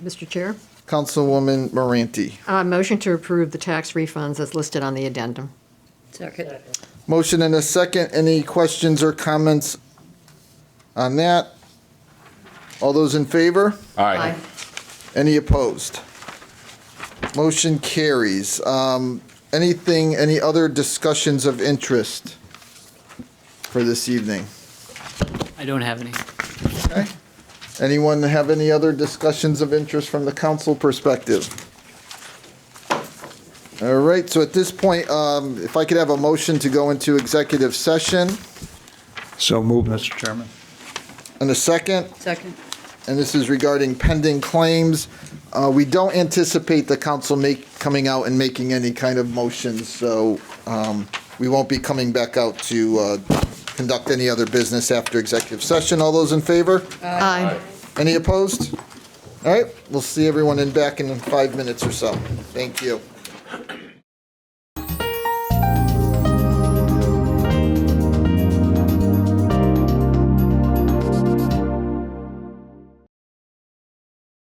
Mr. Chair, Councilwoman Moranti. uh, motion to approve the tax refunds as listed on the addendum. Second. Motion and a second. Any questions or comments on that? All those in favor? Aye. Any opposed? Motion carries. Um, Anything, any other discussions of interest for this evening? I don't have any. Anyone have any other discussions of interest from the council perspective? All right, so at this point, um, if I could have a motion to go into executive session So move, Mr. Chairman. and a second, Second. and this is regarding pending claims. Uh, We don't anticipate the council make, coming out and making any kind of motions, so um, we won't be coming back out to uh, conduct any other business after executive session. All those in favor? Aye. Any opposed? All right, we'll see everyone in back in five minutes or so. Thank you.